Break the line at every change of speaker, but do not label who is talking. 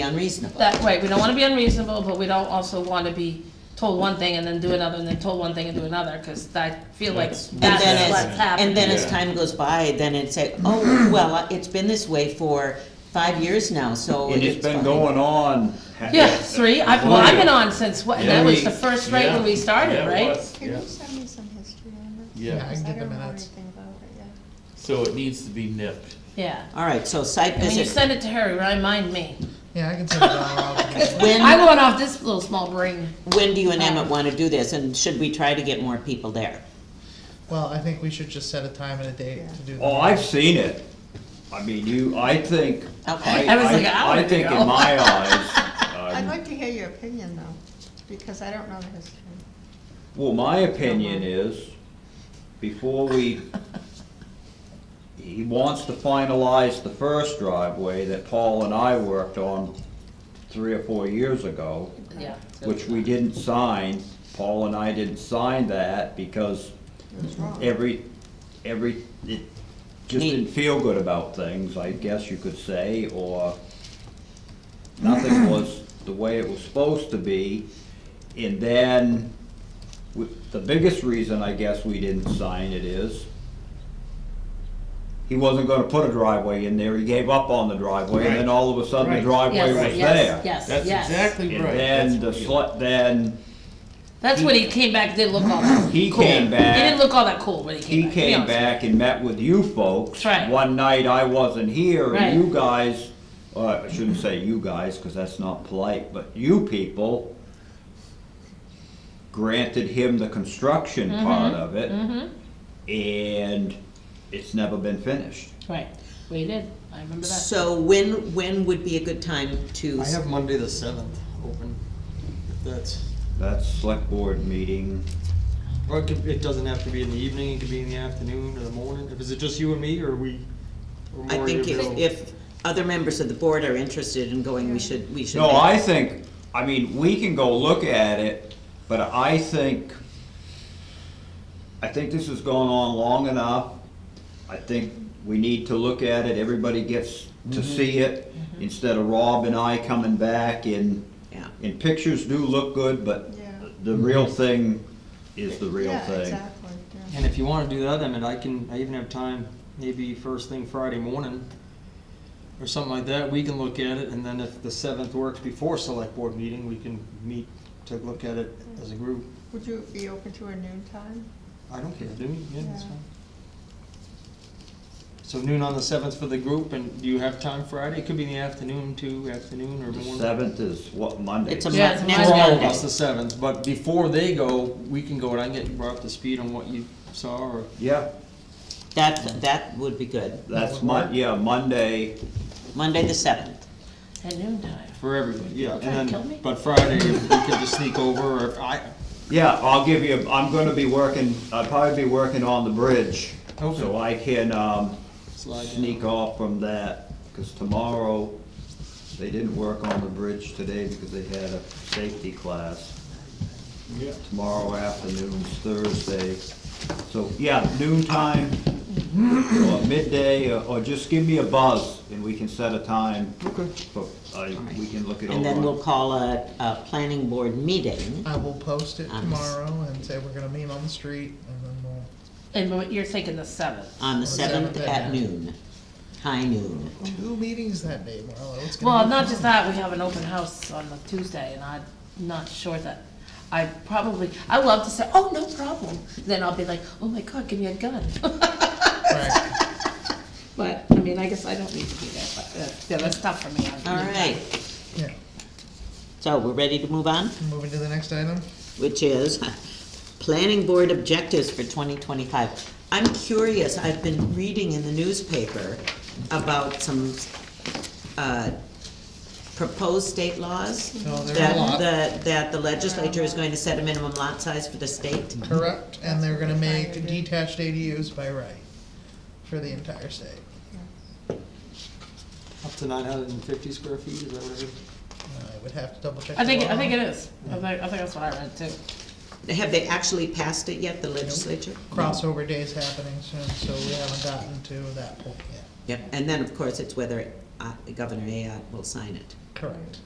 unreasonable.
That, right, we don't wanna be unreasonable, but we don't also wanna be told one thing and then do another, and then told one thing and do another, cause I feel like
That's-
And
that's
then
what's
as,
happening.
and then as
Yeah.
time goes by, then it's like, oh, well, it's been this way for five years now, so
And
it's
it's been
fine.
going on.
Yeah, three, I've, well, I've been on since, what,
Yeah,
that was
we-
the first rate when we started,
Yeah, it
right?
was,
Can
yeah.
you send me some history on this?
Yeah, I can
Because
get the
don't know
minutes.
anything about it yet.
So it needs to be nipped.
Yeah,
All right, so site
and when you
visit,
send it to her, remind me,
Yeah, I can send it all out.
When-
I went off this little small brain.
when do you and Emmett wanna do this, and should we try to get more people there?
Well, I think we should just set a time and a date to do that.
Oh, I've seen it. I mean, you, I think, I,
Okay.
I was like, I
I, I
wanna
think
go.
in my
I'd
eyes, um,
like to hear your opinion though, because I don't know the history.
well, my opinion is, before we, he wants to finalize the first driveway that Paul and I worked on three or four years ago.
Yeah.
which we didn't sign, Paul and I didn't sign that because
It was wrong.
every, every, it just didn't feel good about things, I guess you could say, or nothing was the way it was supposed to be. And then, we- the biggest reason I guess we didn't sign it is he wasn't gonna put a driveway in there, he gave up on the driveway, and then all of a sudden the
Right.
driveway was there.
Yes, yes, yes,
That's
yes.
exactly
And
right.
then the
That's-
slut, then
That's when he came back, didn't look all that.
He
cool.
came back-
He didn't look all that cool when he came
he
back. to be
came
honest.
back and met with you folks.
That's right.
One night I wasn't here
Right.
and you guys, uh, I shouldn't say you guys, cause that's not polite, but you people granted him the construction
Mm-hmm.
part of it. And it's never been finished.
Right, we did, I remember that.
So when, when would be a good time to,
I have Monday the seventh open, if that's,
That's select board meeting.
or it could, it doesn't have to be in the evening, it could be in the afternoon or the morning, if, is it just you and me, or we? or
I
more
think if,
available?
if other members of the board are interested in going, we should, we should.
No,
make-
I think, I mean, we can go look at it, but I think, I think this has gone on long enough. I think we need to look at it, everybody gets to see it, instead of Rob and I coming back and,
Yeah.
and pictures do look good, but
Yeah.
the real thing is the real
Yeah,
thing.
exactly, yeah.
And if you wanna do that, I mean, I can, I even have time, maybe first thing Friday morning, or something like that, we can look at it, and then if the seventh works before select board meeting, we can meet to look at it as a group.
Would you be open to a noon time?
I don't care, do you? Yeah, that's
Yeah.
fine. So noon on the seventh for the group, and do you have time Friday? It could be in the afternoon too, afternoon or
The
morning.
seventh is what, Monday?
It's a
Yeah,
month,
it's a
next
For all of
Monday.
us, the seventh, but before they go, we can go, and I can get you brought up to speed on what you saw, or,
Yeah,
That, that would be good.
that's Mon, yeah, Monday,
Monday the seventh.
At noon time.
for everybody, yeah.
Trying to
And
kill me?
then, but Friday, if we could just sneak over, or if I,
Yeah, I'll give you, I'm gonna be working, I'll probably be working on the bridge. So
Okay.
I can, um,
Slide down.
sneak off from that, cause tomorrow, they didn't work on the bridge today because they had a safety class. Yeah. Tomorrow afternoon's Thursday, so, yeah, noon time, or midday, or- or just give me a buzz, and we can set a time. Okay. For, uh, we can look it over.
And then we'll call a, a planning board meeting.
I will post it
I'm s-
tomorrow and say we're gonna meet on the street and then we'll,
And what you're thinking the seventh.
On the
Seventh
seventh at
at
noon, high noon.
two meetings that day, Marlo, it's gonna
Oh.
be.
Well, not
fun.
just that, we have an open house on the Tuesday, and I'm not sure that, I probably, I love to say, oh, no problem. Then I'll be like, oh my God, give me a gun.
Right.
But, I mean, I guess I don't need to do that, but, uh, yeah, that's tough for me.
All right,
Yeah,
so we're ready to move on,
moving to the next item.
which is planning board objectives for twenty twenty-five. I'm curious, I've been reading in the newspaper about some, uh, proposed state laws.
No, there's Oh, a
That,
lot.
the- that the legislature is going to set a minimum lot size for the state.
Correct, and they're gonna
That's what we're
make
trying to do.
detached ADUs by right for the entire state.
up to nine hundred and fifty square feet, is that what it is?
I would have to double check.
I
the
think, I
law.
think it is. I think, I think that's what I read too.
Have they actually passed it yet, the legislature?
Crossover day's happening soon, so we haven't gotten to that point yet.
Yep, and then, of course, it's whether uh, Governor Ayotte will sign it.
Correct.